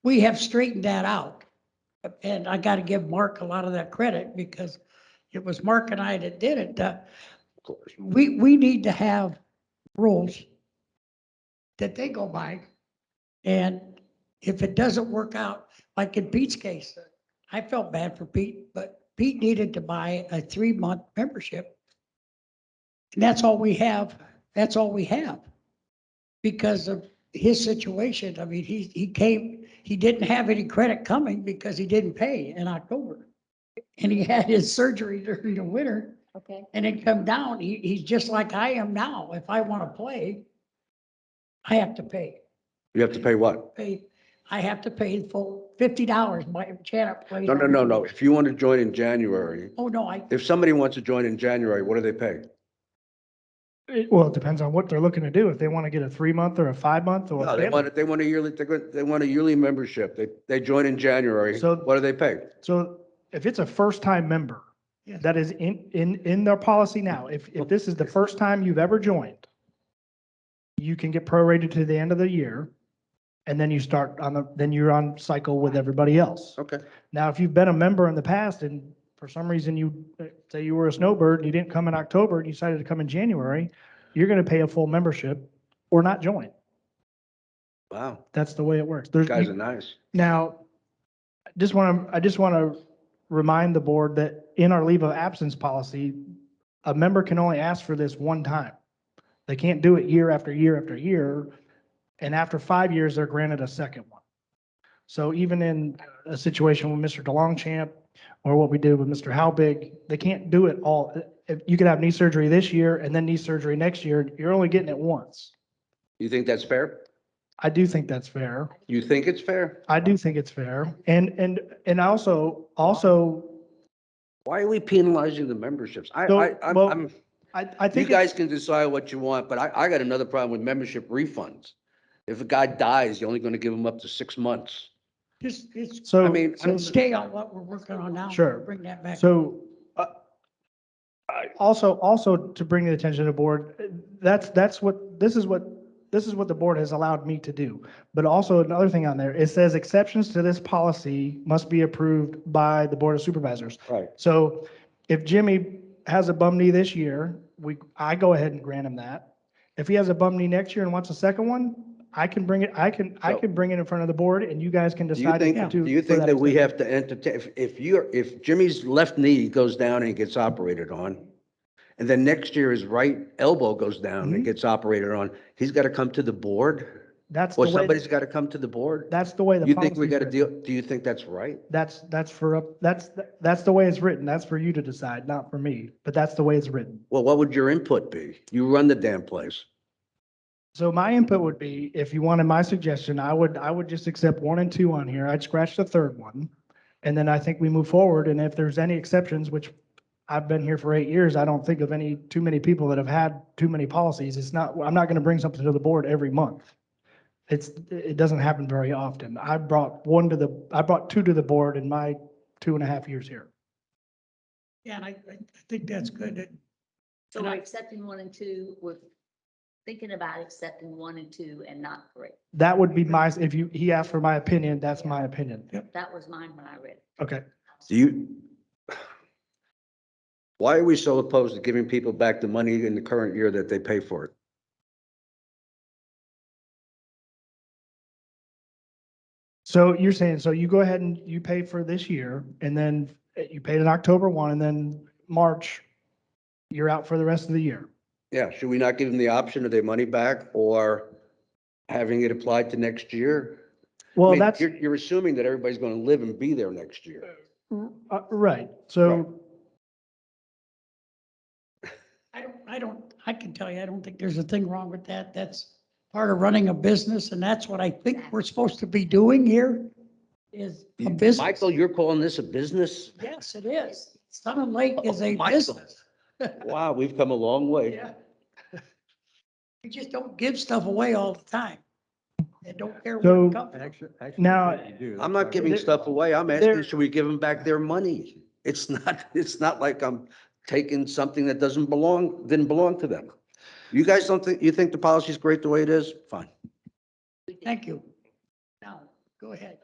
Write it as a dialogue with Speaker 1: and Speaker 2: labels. Speaker 1: we have straightened that out. And I gotta give Mark a lot of that credit because it was Mark and I that did it. Uh, We, we need to have rules that they go by. And if it doesn't work out, like in Pete's case, I felt bad for Pete, but Pete needed to buy a three-month membership. And that's all we have, that's all we have. Because of his situation, I mean, he, he came, he didn't have any credit coming because he didn't pay in October. And he had his surgery during the winter
Speaker 2: Okay,
Speaker 1: and then come down, he, he's just like I am now. If I want to play, I have to pay.
Speaker 3: You have to pay what?
Speaker 1: pay, I have to pay the full fifty dollars, my Janet played.
Speaker 3: No, no, no, no. If you want to join in January,
Speaker 1: Oh, no, I,
Speaker 3: if somebody wants to join in January, what do they pay?
Speaker 4: It- Well, it depends on what they're looking to do. If they want to get a three month or a five month or.
Speaker 3: No,
Speaker 4: a
Speaker 3: they
Speaker 4: family-
Speaker 3: want, they want a yearly, they're good- they want a yearly membership. They, they join in January.
Speaker 4: So-
Speaker 3: What do they pay?
Speaker 4: So if it's a first time member,
Speaker 1: Yes.
Speaker 4: that is in, in, in their policy now, if, if this is the first time you've ever joined, you can get prorated to the end of the year and then you start on the, then you're on cycle with everybody else.
Speaker 3: Okay.
Speaker 4: Now, if you've been a member in the past and for some reason you, uh, say you were a snowbird and you didn't come in October and you decided to come in January, you're going to pay a full membership or not join.
Speaker 3: Wow,
Speaker 4: That's the way it works. There's,
Speaker 3: guys are
Speaker 4: you-
Speaker 3: nice.
Speaker 4: now, I just want to, I just want to remind the board that in our leave of absence policy, a member can only ask for this one time. They can't do it year after year after year. And after five years, they're granted a second one. So even in a situation with Mr. DeLongchamp or what we did with Mr. Howbig, they can't do it all. If You could have knee surgery this year and then knee surgery next year. You're only getting it once.
Speaker 3: You think that's fair?
Speaker 4: I do think that's fair.
Speaker 3: You think it's fair?
Speaker 4: I do think it's fair. And, and, and also, also,
Speaker 3: Why are we penalizing the memberships? I,
Speaker 4: So,
Speaker 3: I, I'm-
Speaker 4: well,
Speaker 3: I'm,
Speaker 4: I, I
Speaker 3: you
Speaker 4: think, it-
Speaker 3: guys can decide what you want, but I, I got another problem with membership refunds. If a guy dies, you're only going to give him up to six months.
Speaker 1: just, it's,
Speaker 4: so.
Speaker 3: I mean,
Speaker 4: so-
Speaker 1: stay on what we're working on now.
Speaker 4: Sure.
Speaker 1: Bring that back.
Speaker 4: So, uh, also, also to bring the attention of the board, uh, that's, that's what, this is what, this is what the board has allowed me to do. But also another thing on there, it says exceptions to this policy must be approved by the Board of Supervisors.
Speaker 3: Right.
Speaker 4: So if Jimmy has a bum knee this year, we, I go ahead and grant him that. If he has a bum knee next year and wants a second one, I can bring it, I can, I
Speaker 3: So-
Speaker 4: can bring it in front of the board and you guys can
Speaker 3: Do you
Speaker 4: decide.
Speaker 3: think,
Speaker 4: if
Speaker 3: do
Speaker 4: to-
Speaker 3: you
Speaker 4: for
Speaker 3: think that we have
Speaker 4: exception.
Speaker 3: to entertain, if, if you're, if Jimmy's left knee goes down and gets operated on, and then next year his right elbow goes down and
Speaker 4: Mhm.
Speaker 3: gets operated on, he's got to come to the board?
Speaker 4: That's the
Speaker 3: Or
Speaker 4: way,
Speaker 3: somebody's got to come to the board?
Speaker 4: that's the way the
Speaker 3: You think we
Speaker 4: policy's
Speaker 3: got to
Speaker 4: written.
Speaker 3: deal, do you think that's right?
Speaker 4: That's, that's for, up. that's, that's the way it's written. That's for you to decide, not for me, but that's the way it's written.
Speaker 3: Well, what would your input be? You run the damn place.
Speaker 4: So my input would be, if you wanted my suggestion, I would, I would just accept one and two on here. I'd scratch the third one. And then I think we move forward. And if there's any exceptions, which I've been here for eight years, I don't think of any, too many people that have had too many policies. It's not, I'm not going to bring something to the board every month. It's, it doesn't happen very often. I brought one to the, I brought two to the board in my two and a half years here.
Speaker 1: Yeah, and I, I think that's good. that-
Speaker 2: so
Speaker 1: And
Speaker 2: we're
Speaker 1: I-
Speaker 2: accepting one and two, we're thinking about accepting one and two and not three.
Speaker 4: That would be my, if you, he asked for my opinion, that's my opinion.
Speaker 2: That was mine when I read it.
Speaker 4: Okay.
Speaker 3: Do you? Why are we so opposed to giving people back the money in the current year that they pay for it?
Speaker 4: So you're saying, so you go ahead and you pay for this year and then eh, you paid in October one and then March, you're out for the rest of the year.
Speaker 3: Yeah, should we not give them the option of their money back or having it applied to next year? I
Speaker 4: Well,
Speaker 3: mean,
Speaker 4: that's,
Speaker 3: You're, you're assuming that everybody's going to live and be there next year.
Speaker 4: uh, right. So
Speaker 1: I don't, I don't, I can tell you, I don't think there's a thing wrong with that. That's part of running a business and that's what I think we're supposed to be doing here is a business.
Speaker 3: Michael, you're calling this a business?
Speaker 1: Yes, it is. Sun and Lake is a
Speaker 3: Oh, Michael.
Speaker 1: business.
Speaker 3: Wow, we've come a long way.
Speaker 1: Yeah. You just don't give stuff away all the time. And don't care
Speaker 4: So-
Speaker 1: what company.
Speaker 5: Actually,
Speaker 4: Now-
Speaker 3: I'm not giving stuff away. I'm asking,
Speaker 4: There-
Speaker 3: should we give them back their money? It's not, it's not like I'm taking something that doesn't belong, didn't belong to them. You guys don't think, you think the policy's great the way it is? Fine.
Speaker 1: Thank you. Now, go ahead.